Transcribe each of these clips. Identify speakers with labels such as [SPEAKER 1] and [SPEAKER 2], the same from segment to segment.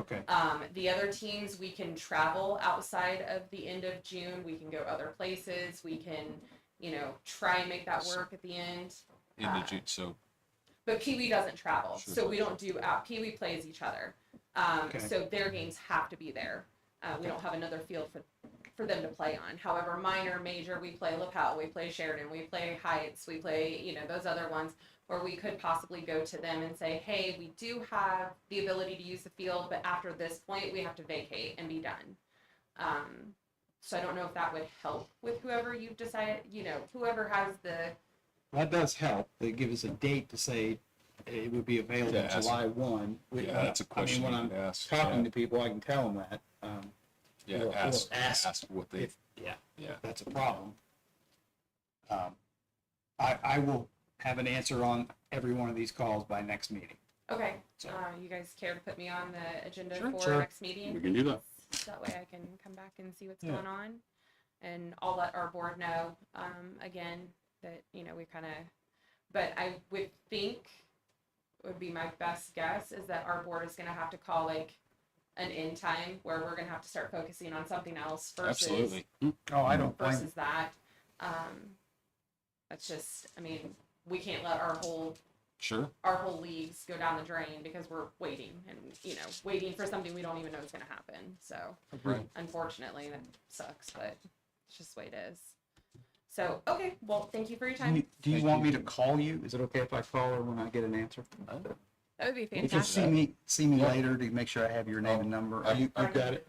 [SPEAKER 1] Okay.
[SPEAKER 2] Um, the other teams, we can travel outside of the end of June. We can go other places. We can, you know, try and make that work at the end. Uh,
[SPEAKER 3] End of June, so
[SPEAKER 2] But Pee Wee doesn't travel,
[SPEAKER 3] Sure.
[SPEAKER 2] so we don't do out. Pee Wee plays each other, um,
[SPEAKER 1] Okay.
[SPEAKER 2] so their games have to be there. Uh, we don't have another field for for them to play on. However, minor, major, we play LaPel, we play Sheridan, we play Heights, we play you know those other ones where we could possibly go to them and say, hey, we do have the ability to use the field, but after this point, we have to vacate and be done. Um, so I don't know if that would help with whoever you've decided, you know, whoever has the
[SPEAKER 1] That does help. They give us a date to say it would be available
[SPEAKER 3] Yeah, that's-
[SPEAKER 1] July one. We- uh,
[SPEAKER 3] yeah, that's
[SPEAKER 1] I
[SPEAKER 3] a
[SPEAKER 1] mean,
[SPEAKER 3] question you
[SPEAKER 1] When
[SPEAKER 3] can
[SPEAKER 1] I'm
[SPEAKER 3] ask.
[SPEAKER 1] talking to people, I can tell them that, um,
[SPEAKER 3] Yeah, yeah,
[SPEAKER 1] we'll-
[SPEAKER 3] ask,
[SPEAKER 1] we'll ask
[SPEAKER 3] ask what they,
[SPEAKER 1] if, yeah,
[SPEAKER 3] yeah.
[SPEAKER 1] that's a problem. Um, I, I will have an answer on every one of these calls by next meeting.
[SPEAKER 2] Okay,
[SPEAKER 1] So-
[SPEAKER 2] uh, you guys care to put me on the agenda
[SPEAKER 1] Sure.
[SPEAKER 2] for
[SPEAKER 1] Sure.
[SPEAKER 2] next meeting?
[SPEAKER 4] We can do that.
[SPEAKER 2] That way I can come back and see what's
[SPEAKER 1] Yeah.
[SPEAKER 2] going on. And I'll let our board know, um, again, that, you know, we kind of, but I would think, would be my best guess, is that our board is gonna have to call like an end time where we're gonna have to start focusing on something else versus
[SPEAKER 3] Absolutely.
[SPEAKER 1] Oh, I don't blame,
[SPEAKER 2] versus that. Um, that's just, I mean, we can't let our whole
[SPEAKER 3] Sure.
[SPEAKER 2] our whole leagues go down the drain because we're waiting and you know waiting for something we don't even know is going to happen so
[SPEAKER 3] Right.
[SPEAKER 2] unfortunately that sucks but it's just the way it is so okay well thank you for your time
[SPEAKER 1] do you
[SPEAKER 3] Thank
[SPEAKER 1] want
[SPEAKER 3] you.
[SPEAKER 1] me to call you? Is it okay if I call her when I get an answer?
[SPEAKER 2] that would be
[SPEAKER 1] You can see
[SPEAKER 2] fantastic
[SPEAKER 1] me, see me later to make sure I have your name and number.
[SPEAKER 3] Oh,
[SPEAKER 1] Are you,
[SPEAKER 2] I've got
[SPEAKER 3] it.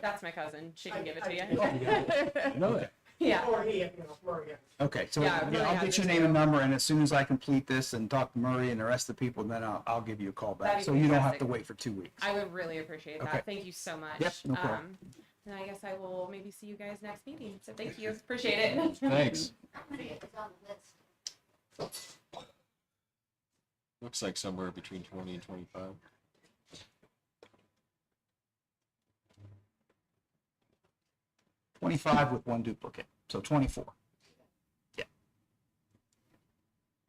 [SPEAKER 2] that's my cousin she can give it to
[SPEAKER 1] I-
[SPEAKER 2] you
[SPEAKER 1] know that?
[SPEAKER 2] yeah
[SPEAKER 5] Or he, you know, or he.
[SPEAKER 1] Okay, so
[SPEAKER 2] Yeah, I
[SPEAKER 1] yeah,
[SPEAKER 2] really
[SPEAKER 1] I'll
[SPEAKER 2] have
[SPEAKER 1] get
[SPEAKER 2] this
[SPEAKER 1] your name
[SPEAKER 2] too.
[SPEAKER 1] and number, and as soon as I complete this and talk to Murray and the rest of the people, then I'll, I'll give you a call back.
[SPEAKER 2] That'd be
[SPEAKER 1] So you don't have to
[SPEAKER 2] fantastic.
[SPEAKER 1] wait for two weeks.
[SPEAKER 2] i would really appreciate that
[SPEAKER 1] Okay.
[SPEAKER 2] thank you so much
[SPEAKER 1] Yep, no problem.
[SPEAKER 2] um and i guess i will maybe see you guys next meeting so thank you appreciate it
[SPEAKER 3] Thanks.
[SPEAKER 6] I'm gonna get this on the list.
[SPEAKER 3] Looks like somewhere between twenty and twenty-five.
[SPEAKER 1] Twenty-five with one duplicate, so twenty-four. Yeah.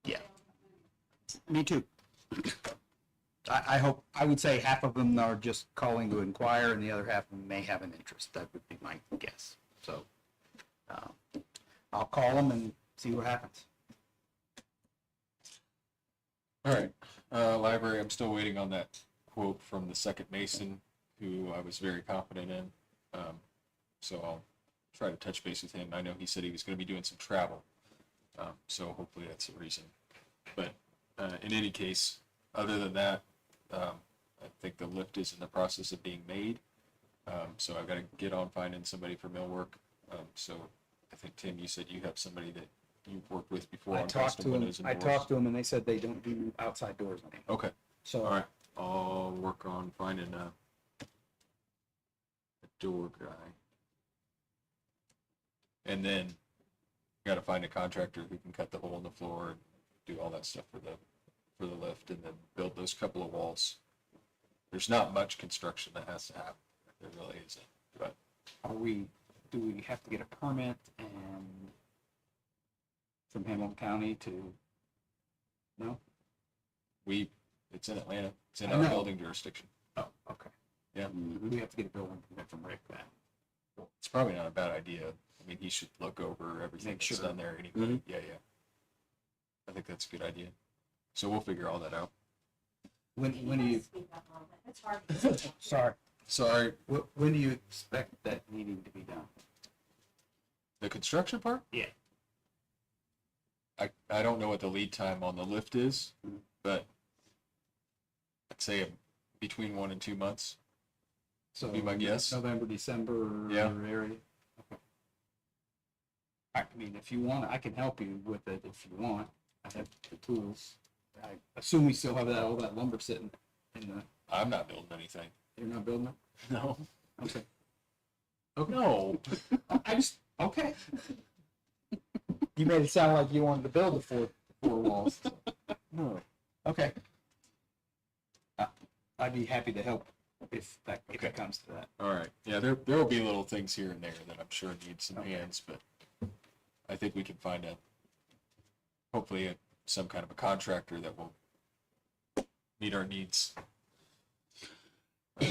[SPEAKER 1] Yeah. Me too. I, I hope, I would say half of them are just calling to inquire, and the other half may have an interest. That would be my guess. So, uh, I'll call them and see what happens.
[SPEAKER 3] All right, uh, library, I'm still waiting on that quote from the second mason, who I was very confident in. Um, so I'll try to touch base with him. I know he said he was going to be doing some travel. Um, so hopefully that's the reason. But uh, in any case, other than that, um, I think the lift is in the process of being made. Um, so I've got to get on finding somebody for millwork. Um, so I think, Tim, you said you have somebody that you've worked with before
[SPEAKER 1] I
[SPEAKER 3] on
[SPEAKER 1] talked
[SPEAKER 3] custom
[SPEAKER 1] to them,
[SPEAKER 3] windows and
[SPEAKER 1] I
[SPEAKER 3] doors.
[SPEAKER 1] talked to them and they said they don't do outside doors anymore.
[SPEAKER 3] Okay. All
[SPEAKER 1] So
[SPEAKER 3] right, I'll work on finding a, a door guy. And then gotta find a contractor who can cut the hole in the floor and do all that stuff for the, for the lift and then build those couple of walls. There's not much construction that has to happen. There really isn't, but
[SPEAKER 1] are we, do we have to get a permit and from Hamilton County to, no?
[SPEAKER 3] we, it's in Atlanta, it's in
[SPEAKER 1] I
[SPEAKER 3] our
[SPEAKER 1] know.
[SPEAKER 3] building jurisdiction.
[SPEAKER 1] Oh, okay.
[SPEAKER 3] Yeah.
[SPEAKER 1] We have to get a building permit from Rick then.
[SPEAKER 3] It's probably not a bad idea. I mean, he should look over everything
[SPEAKER 1] Make
[SPEAKER 3] that's
[SPEAKER 1] sure. Mm-hmm.
[SPEAKER 3] done there anyway. Yeah, yeah. I think that's a good idea. So we'll figure all that out.
[SPEAKER 1] When, when do you,
[SPEAKER 6] Speak up on that. It's hard to speak up.
[SPEAKER 1] sorry,
[SPEAKER 3] Sorry,
[SPEAKER 1] when, when do you expect that meeting to be done?
[SPEAKER 3] the construction part?
[SPEAKER 1] Yeah.
[SPEAKER 3] I, I don't know what the lead time on the lift is,
[SPEAKER 1] Mhm.
[SPEAKER 3] but I'd say between one and two months.
[SPEAKER 1] So
[SPEAKER 3] Be my guess.
[SPEAKER 1] November, December
[SPEAKER 3] Yeah.
[SPEAKER 1] area. I mean, if you want, I can help you with it if you want. I have the tools. I assume we still have that, all that lumber sitting in the,
[SPEAKER 3] I'm not building anything.
[SPEAKER 1] you're not building it?
[SPEAKER 3] No.
[SPEAKER 1] Okay.
[SPEAKER 3] No.
[SPEAKER 1] I just, okay. You made it sound like you wanted to build the four, four walls.
[SPEAKER 3] No.
[SPEAKER 1] Okay. Uh, I'd be happy to help if that, if
[SPEAKER 3] Okay.
[SPEAKER 1] it comes to that.
[SPEAKER 3] All right. Yeah, there there will be little things here and there that I'm sure need some
[SPEAKER 1] Okay.
[SPEAKER 3] hands, but I think we can find a hopefully a, some kind of a contractor that will meet our needs.